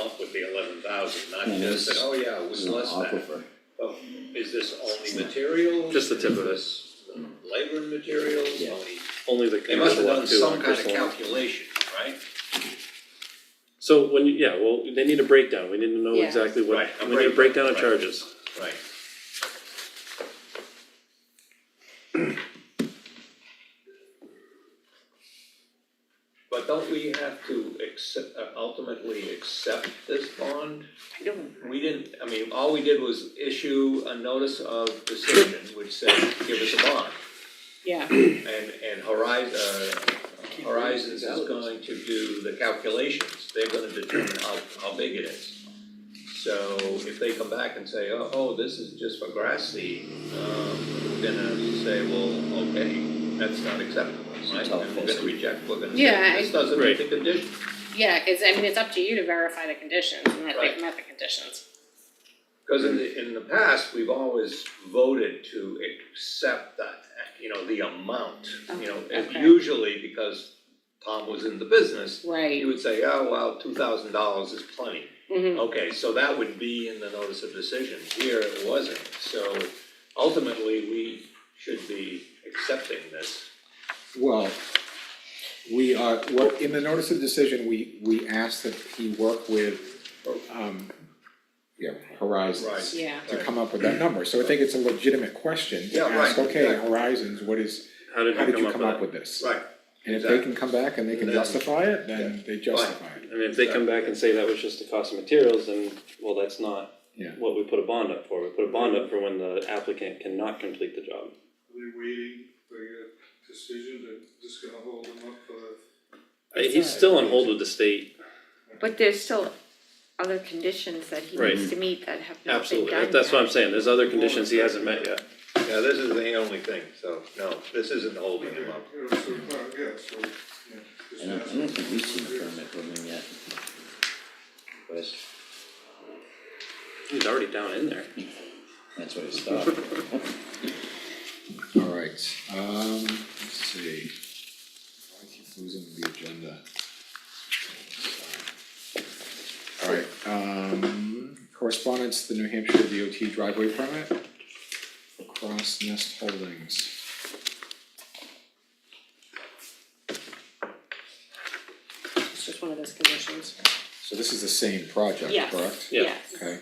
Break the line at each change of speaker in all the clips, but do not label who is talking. Up would be eleven thousand, not just that, oh yeah, it was less than. Oh, Is this only material?
Just the tip of it.
Labor and materials,
Yeah.
only,
Only the.
they must have done some kind of
Crystal.
calculation, right?
So when, you- yeah, well, they need a breakdown, we need to know
Yeah.
exactly what,
Right, a
we need a breakdown of
breakdown, right.
charges.
Right. But don't we have to accept, uh, ultimately accept this bond?
I don't,
We didn't, I mean, all we did was issue a notice of decision, which said, give us a bond.
yeah,
And, and Horizon, uh, Horizons is going to do the calculations, they're gonna determine how, how big it is. So if they come back and say, oh, oh, this is just for grass seed, um, we're gonna say, well, okay, that's not acceptable, right? And we're gonna reject, we're gonna
Yeah,
say,
I-
this doesn't meet the condition.
yeah, cause I mean, it's up to you to verify the conditions and that
Right.
they've met the conditions.
Cause in the, in the past, we've always voted to accept that, you know, the amount, you know, and
Okay.
usually because Tom was in the business,
Right,
you would say, oh, well, two thousand dollars is plenty.
Mm-hmm.
mhm,
Okay, so that would be in the notice of decision, here it wasn't, so ultimately, we should be accepting this.
Well, we are, well, in the notice of decision, we, we asked that he work with, um, yeah, Horizons.
Right.
yeah,
To come up with that number, so I think it's a legitimate question to
Yeah, right,
ask, okay,
exactly.
Horizons, what is,
How did
how
you
did you come up
with
with this?
Right.
And if they can come back and they can
Then-
justify it, then they justify it.
that? I mean, if they come back and say that was just the cost of materials, then, well, that's not
Yeah.
what we put a bond up for, we put a bond up for when the applicant cannot complete the job.
Are they waiting for your decision, they're just gonna hold them up for the
Uh, He's still on hold with the state,
But there's still other conditions that he
Right.
needs to meet that have not been
absolutely,
done yet.
that's what I'm saying, there's other conditions he hasn't met yet.
Yeah, this is the only thing, so, no, this isn't holding him up.
You know, so, uh, yeah, so, yeah. just
I don't, I
ask
don't
them
think we've seen a
what it is.
permit from him yet. But
He's already down in there.
that's where it stopped.
Alright, um, let's see. I keep losing the agenda. Alright, um, correspondence, to the New Hampshire DOT driveway permit, Cross Nest Holdings.
it's just one of those conditions.
So this is the same project,
Yes.
correct?
Yeah.
Yes,
Okay,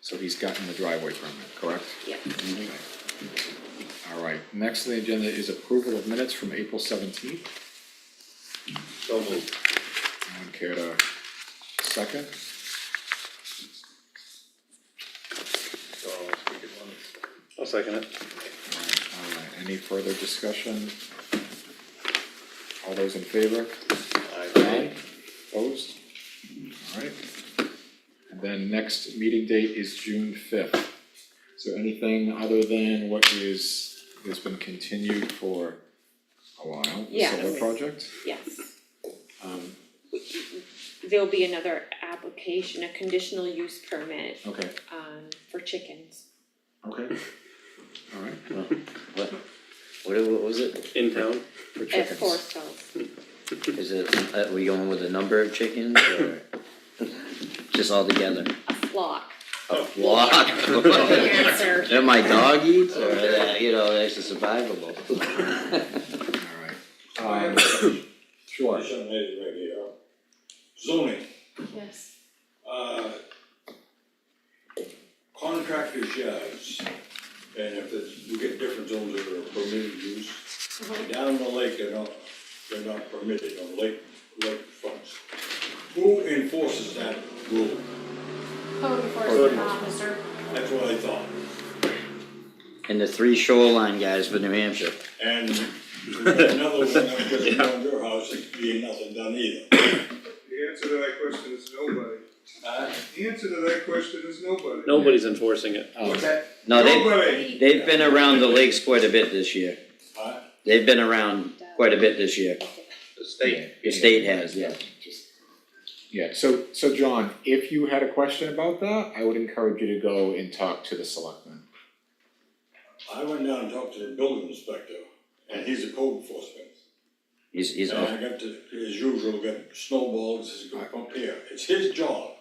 so he's gotten the driveway permit, correct?
yeah,
Okay. Alright, next on the agenda is approval of minutes from April seventeenth,
So moved.
anyone care to second?
So, we could, um,
I'll second it.
Alright, any further discussion? All those in favor?
I,
Opposed? Alright. And then next meeting date is June fifth. Is there anything other than what is, has been continued for a while, the
Yeah.
solar project?
Yes,
Um,
there'll be another application, a conditional use permit,
okay,
um, for chickens.
okay. Alright,
Well, What, what, what was it?
In town,
for
At four
chickens.
cells,
Is it, uh, we going with the number of chickens or? Just all together?
a flock.
A flock? That my dog eats or that, you know, that's just survivable?
Alright. Um, sure.
Question is right here. Zoning,
Yes.
uh, contractors' yards, and if it's, we get different zones that are permitted use.
Mhm.
Down the lake, they're not, they're not permitted on lake, lake fronts. Who enforces that rule?
Code enforcement officer.
That's what I thought.
And the three shoreline guys from New Hampshire.
And another one, I'm just around your house, it's being nothing done either.
The answer to that question is nobody.
Uh,
The answer to that question is nobody.
nobody's enforcing it.
Um,
No, they,
Nobody.
they've been around the lakes quite a bit this year.
Huh?
They've been around quite a bit this year.
the state,
The state has, yeah.
Yeah, so, so John, if you had a question about that, I would encourage you to go and talk to the selectmen.
I went down and talked to the building inspector, and he's a code enforcement.
He's, he's,
And I got to, as usual, got snowballs, it's going up here, it's his job